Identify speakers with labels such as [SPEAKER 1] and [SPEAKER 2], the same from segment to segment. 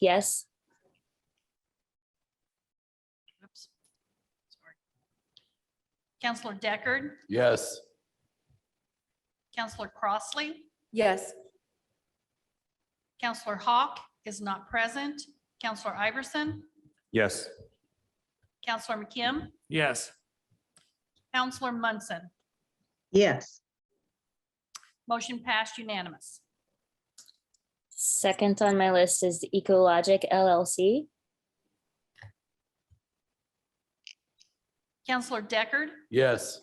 [SPEAKER 1] yes.
[SPEAKER 2] Oops. Sorry. Counselor Deckard,
[SPEAKER 3] Yes.
[SPEAKER 2] Counselor Crossley,
[SPEAKER 4] Yes.
[SPEAKER 2] Counselor Hawk is not present, Counselor Iverson,
[SPEAKER 5] Yes.
[SPEAKER 2] Counselor McKim,
[SPEAKER 5] Yes.
[SPEAKER 2] Counselor Munson.
[SPEAKER 6] yes,
[SPEAKER 2] Motion passed unanimous.
[SPEAKER 1] Second on my list is Ecologic LLC.
[SPEAKER 2] Counselor Deckard,
[SPEAKER 3] Yes.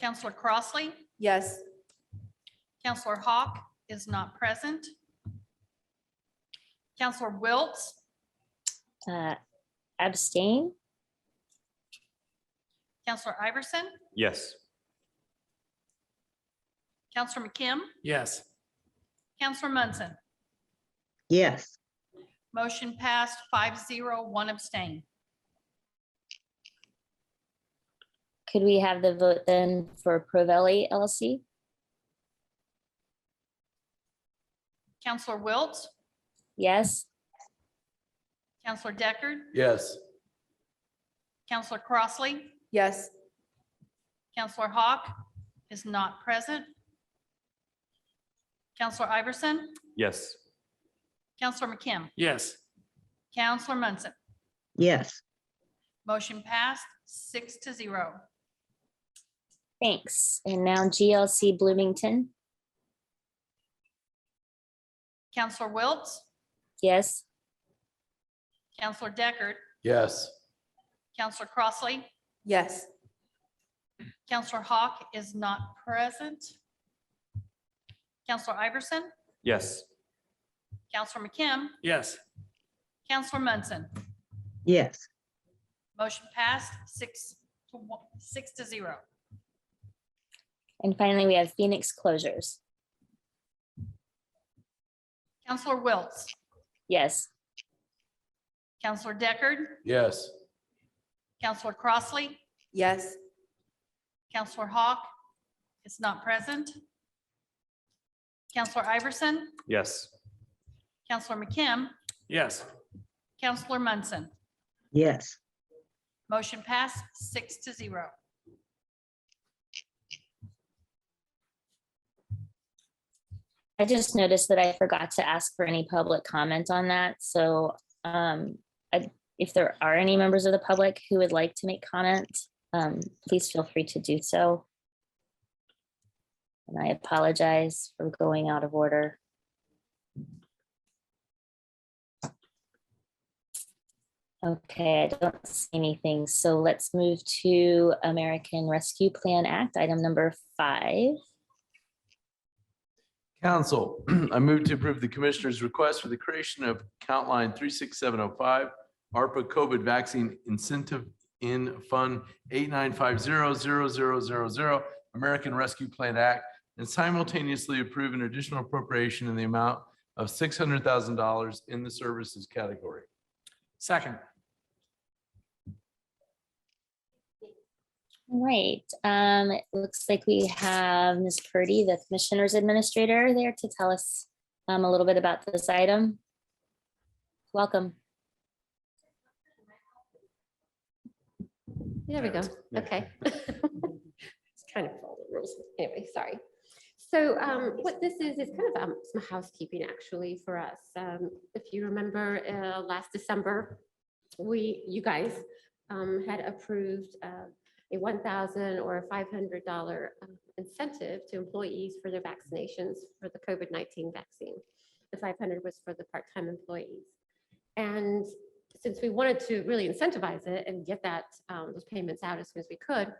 [SPEAKER 2] Counselor Crossley,
[SPEAKER 4] Yes.
[SPEAKER 2] Counselor Hawk is not present. Counselor Wiltz,
[SPEAKER 1] Uh, Abstain,
[SPEAKER 2] Counselor Iverson,
[SPEAKER 5] Yes.
[SPEAKER 2] Counselor McKim,
[SPEAKER 5] Yes.
[SPEAKER 2] Counselor Munson.
[SPEAKER 6] yes,
[SPEAKER 2] Motion passed five zero, one abstain.
[SPEAKER 1] could we have the vote then for Provelli LLC?
[SPEAKER 2] Counselor Wiltz,
[SPEAKER 1] Yes,
[SPEAKER 2] Counselor Deckard,
[SPEAKER 3] Yes.
[SPEAKER 2] Counselor Crossley,
[SPEAKER 4] Yes.
[SPEAKER 2] Counselor Hawk is not present. Counselor Iverson,
[SPEAKER 5] Yes.
[SPEAKER 2] Counselor McKim,
[SPEAKER 5] Yes.
[SPEAKER 2] Counselor Munson.
[SPEAKER 6] yes,
[SPEAKER 2] Motion passed six to zero.
[SPEAKER 1] thanks. And now GLC Bloomington,
[SPEAKER 2] Counselor Wiltz,
[SPEAKER 1] yes.
[SPEAKER 2] Counselor Deckard,
[SPEAKER 3] Yes.
[SPEAKER 2] Counselor Crossley,
[SPEAKER 4] Yes.
[SPEAKER 2] Counselor Hawk is not present. Counselor Iverson,
[SPEAKER 5] Yes.
[SPEAKER 2] Counselor McKim,
[SPEAKER 5] Yes.
[SPEAKER 2] Counselor Munson.
[SPEAKER 6] yes.
[SPEAKER 2] Motion passed six to one, six to zero.
[SPEAKER 1] And finally, we have Phoenix Closures.
[SPEAKER 2] Counselor Wiltz,
[SPEAKER 1] Yes,
[SPEAKER 2] Counselor Deckard,
[SPEAKER 3] Yes.
[SPEAKER 2] Counselor Crossley,
[SPEAKER 4] Yes.
[SPEAKER 2] Counselor Hawk is not present. Counselor Iverson,
[SPEAKER 5] Yes.
[SPEAKER 2] Counselor McKim,
[SPEAKER 5] Yes.
[SPEAKER 2] Counselor Munson.
[SPEAKER 6] Yes,
[SPEAKER 2] Motion passed six to zero.
[SPEAKER 1] I just noticed that I forgot to ask for any public comment on that, so um, I- if there are any members of the public who would like to make comment, um, please feel free to do so. And I apologize for going out of order. Okay, I don't see anything, so let's move to American Rescue Plan Act, item number five.
[SPEAKER 3] Council, I move to approve the commissioner's request for the creation of count line three six seven oh five ARPA COVID vaccine incentive in fund eight nine five zero zero zero zero zero American Rescue Plan Act and simultaneously approve an additional appropriation in the amount of six hundred thousand dollars in the services category.
[SPEAKER 5] Second.
[SPEAKER 1] Right, um, it looks like we have Ms. Purdy, the Commissioner's Administrator, there to tell us um, a little bit about this item. Welcome.
[SPEAKER 7] There we go. Okay. It's kind of all the rules. Anyway, sorry. So um, what this is, is kind of um, some housekeeping actually for us. Um, If you remember uh, last December, we, you guys um, had approved uh, a one thousand or a five hundred dollar um, incentive to employees for their vaccinations for the COVID nineteen vaccine. The five hundred was for the part-time employees. And since we wanted to really incentivize it and get that, um, those payments out as soon as we could,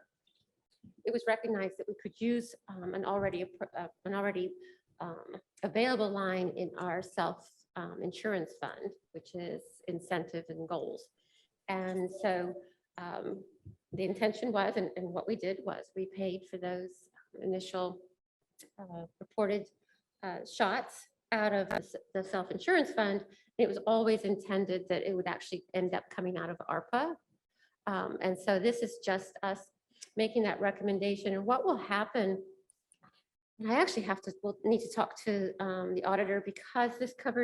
[SPEAKER 7] it was recognized that we could use, um, an already, appro- uh, an already, um, available line in our self, um, insurance fund, which is incentive and goals. And so, um, the intention was, and, and what we did was we paid for those initial, uh, reported, uh, shots out of the s- the self-insurance fund it was always intended that it would actually end up coming out of ARPA. Um, And so this is just us making that recommendation. And what will happen? And I actually have to, will need to talk to um, the auditor because this covers